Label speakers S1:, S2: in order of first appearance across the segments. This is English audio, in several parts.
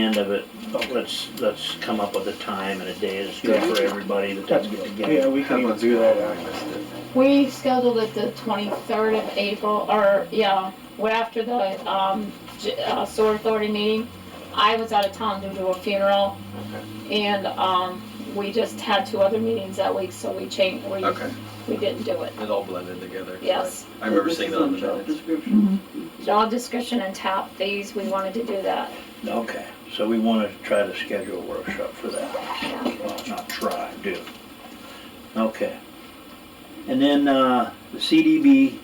S1: end of it, but let's, let's come up with a time and a day that's good
S2: Yeah.
S1: for everybody that doesn't get
S2: Yeah,
S1: together.
S2: we can even do that, I missed it.
S3: We scheduled it the twenty-third of April, or, yeah, well, after the, um, J- uh, sewer authority meeting. I was out of town due to a funeral, and, um, we just had two other meetings that week, so we changed, we,
S4: Okay,
S3: we didn't do it,
S4: it all blended together.
S3: yes.
S4: I remember seeing that on the
S5: job
S4: minutes.
S5: description.
S3: Job description and tap fees, we wanted to do that,
S1: Okay, so we wanna try to schedule a workshop for that,
S3: yeah.
S1: well, not try, do. Okay. And then, uh, the CDB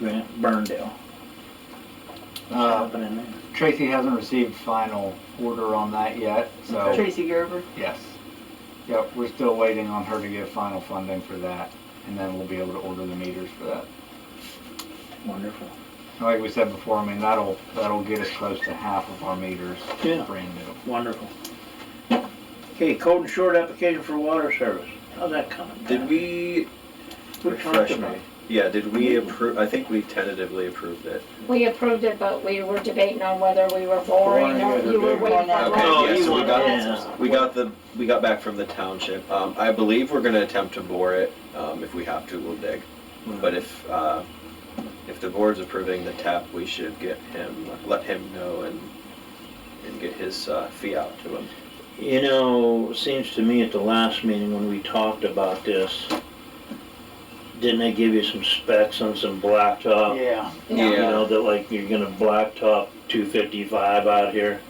S1: grant, Burndale. What's
S6: Uh,
S1: happening there?
S6: Tracy hasn't received final order on that yet, so,
S5: Tracy Gerber.
S6: yes. Yep, we're still waiting on her to get final funding for that, and then we'll be able to order the meters for that.
S1: Wonderful.
S6: And Like we said before, I mean, that'll, that'll get us close to half of our meters,
S1: Yeah.
S6: brand new.
S1: Wonderful. Okay, code and short application for water service. How's that coming?
S4: Did
S1: We
S4: we,
S1: talked
S4: refresh
S1: about
S4: me,
S1: it.
S4: yeah, did we approve, I think we tentatively approved it.
S3: We approved it, but we were debating on whether we were boring, or you were waiting for.
S4: Okay,
S1: Oh,
S4: yeah,
S1: you
S4: so we
S1: want
S4: got-
S1: that.
S4: We got the, we got back from the township, um, I believe we're gonna attempt to bore it, um, if we have to, we'll dig. But if, uh, if the board's approving the tap, we should get him, let him know and, and get his, uh, fee out to him.
S1: You know, it seems to me at the last meeting when we talked about this, didn't they give you some specs on some blacktop?
S2: Yeah.
S3: Yeah.
S1: You know, that like you're gonna blacktop two fifty-five out here?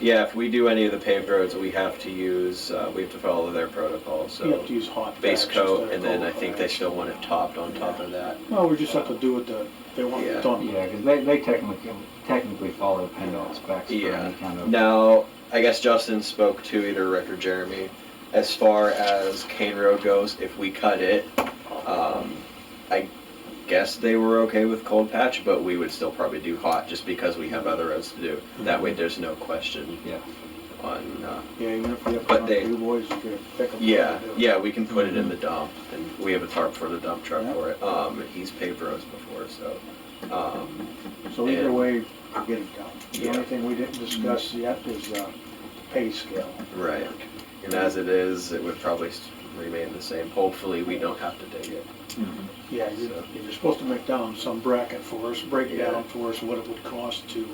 S4: Yeah, if we do any of the paved roads, we have to use, uh, we have to follow their protocol,
S2: You have
S4: so
S2: to use hot.
S4: base
S2: batch instead
S4: coat,
S2: of
S4: and then I
S2: cold
S4: think they
S2: batch.
S4: still want it topped on top of that.
S2: No, we just have to do it the, they want
S4: Yeah.
S2: it done.
S6: Yeah, because they, they technically, technically follow PennDOT specs for
S4: Yeah.
S6: any kind of,
S4: Now, I guess Justin spoke to either Rick or Jeremy. As far as Kane Road goes, if we cut it, um, I guess they were okay with cold patch, but we would still probably do hot just because we have other roads to do. That way, there's no question
S6: yeah.
S4: on. Uh,
S2: Yeah, even if we have
S4: But
S2: to
S4: they-
S2: do boys, you could pick them.
S4: yeah, yeah, we can put it in the dump, and we have a tarp for the dump truck for it. Um, he's paved roads before, so. Um,
S2: So either
S4: And-
S2: way, we'll get it done. The
S4: Yeah.
S2: only thing we didn't discuss yet is uh, the pay scale.
S4: right. And as it is, it would probably s- remain the same. Hopefully, we don't have to dig it.
S2: Yeah, you're, you're supposed to make down some bracket for us, break down for us what it would cost to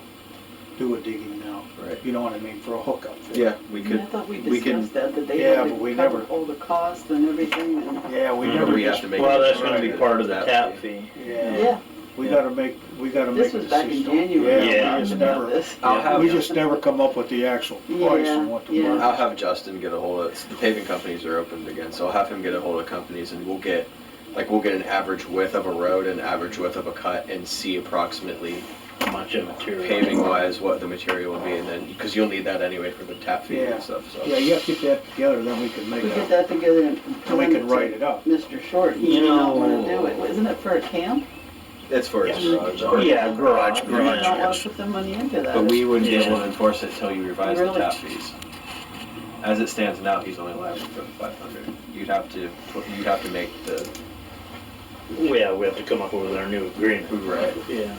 S2: do a digging now.
S4: Right.
S2: You know what I mean, for a hookup.
S4: Yeah, we
S5: I
S4: could
S5: thought we
S4: we can-
S5: discussed that, that they
S2: Yeah,
S5: had
S2: but we
S5: to cover
S2: never-
S5: all the costs and everything and.
S2: Yeah, we
S1: Mhm.
S2: never
S4: Mm-hmm. We have
S2: just,
S4: to make-
S1: Well, that's gonna be
S4: Right.
S1: part of the
S4: That
S1: tap
S4: fee.
S1: fee.
S2: yeah,
S5: Yeah,
S2: we
S1: Yeah.
S2: gotta make, we gotta make
S5: this
S2: a
S5: was
S2: decision.
S5: back in January. we
S2: Yeah,
S1: Yeah.
S2: we
S5: talked
S2: just
S5: about
S2: never,
S5: this.
S4: I'll have
S2: we just never come up with the actual price
S5: Oh, Yeah,
S2: and what the
S5: yeah.
S2: work.
S4: I'll have Justin get a hold of the paving companies are opened again, so I'll have him get a hold of companies and we'll get like we'll get an average width of a road and average width of a cut and see approximately
S1: How much of material?
S4: paving wise what the material will be and then because you'll need that anyway for the tap fee
S2: Yeah.
S4: and stuff. So
S2: Yeah, you have to get that together, then we can
S5: We
S2: make
S5: get
S2: it,
S5: that together and.
S2: then we can write it up.
S5: Mr. Short, he
S1: You
S5: did not wanna
S1: know-
S5: do it, isn't it for a camp?
S4: it's for his
S1: Yes.
S4: garage.
S1: Oh, yeah, garage,
S5: You did not wanna
S1: garage.
S5: put the money into that.
S4: But we wouldn't be able
S1: Yeah.
S4: to enforce it until you revise the
S5: Really?
S4: tap fees. As it stands now, he's only liable for the five hundred. You'd have to you'd have to make the
S1: Yeah, we have to come up with our new agreement.
S4: right.
S1: Yeah.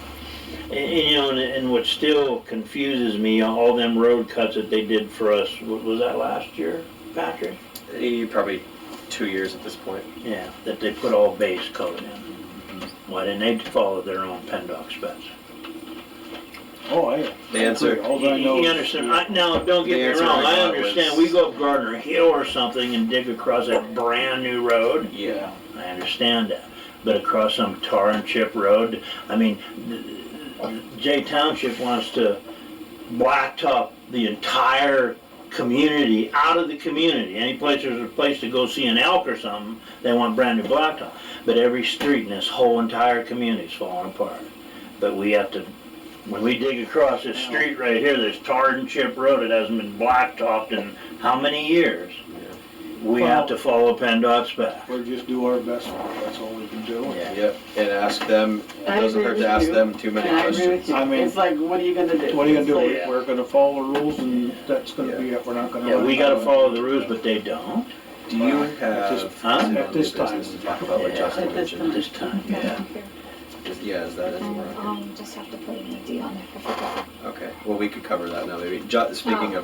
S1: And, and, you know, and, and what still confuses me, all them road cuts that they did for us, wa- was that last year, Patrick?
S4: Eh, Probably two years at this point.
S1: Yeah, that they put all base coat in. Why didn't they follow their own PennDOT specs?
S2: Oh, yeah.
S4: The answer-
S2: All
S1: You
S2: I know
S1: you
S2: is-
S1: understand, I, now, don't get
S4: The
S1: me
S4: answer
S1: wrong,
S4: I
S1: I
S4: got
S1: understand,
S4: was-
S1: we go up Gardner Hill or something and dig across that brand-new road,
S4: Yeah.
S1: I understand that. But across some tar and chip road, I mean, th- th- Jay Township wants to blacktop the entire community, out of the community. Any place there's a place to go see an elk or something, they want brand-new blacktop. But every street in this whole entire community's falling apart. But we have to, when we dig across this street right here, this tar and chip road, it hasn't been blacktopped in how many years? We have to follow PennDOT's back.
S2: We'll just do our best, that's all we can do.
S4: Yep, and ask them, it
S5: I
S4: doesn't
S5: agree
S4: hurt
S5: with
S4: to ask
S5: you.
S4: them too many
S5: And I agree
S4: questions.
S5: with you,
S2: I mean-
S5: it's like, what are you gonna do?
S2: What are you gonna do?
S5: It's like-
S2: We- We're gonna follow the rules and that's gonna be it, we're not gonna.
S1: Yeah, we gotta follow the rules, but they don't,
S4: Do you
S2: At this-
S4: have?
S1: huh?
S4: some
S2: At this
S4: new business
S2: time.
S4: To talk about what
S1: Yeah.
S4: Justin
S5: At this
S4: mentioned.
S1: this time.
S4: Yeah,
S3: Here.
S4: Is- yeah, is that
S3: Um,
S4: anywhere?
S3: um, just have to put an ID on it, I forgot.
S4: Okay, well, we could cover that now, maybe. Ju- Speaking of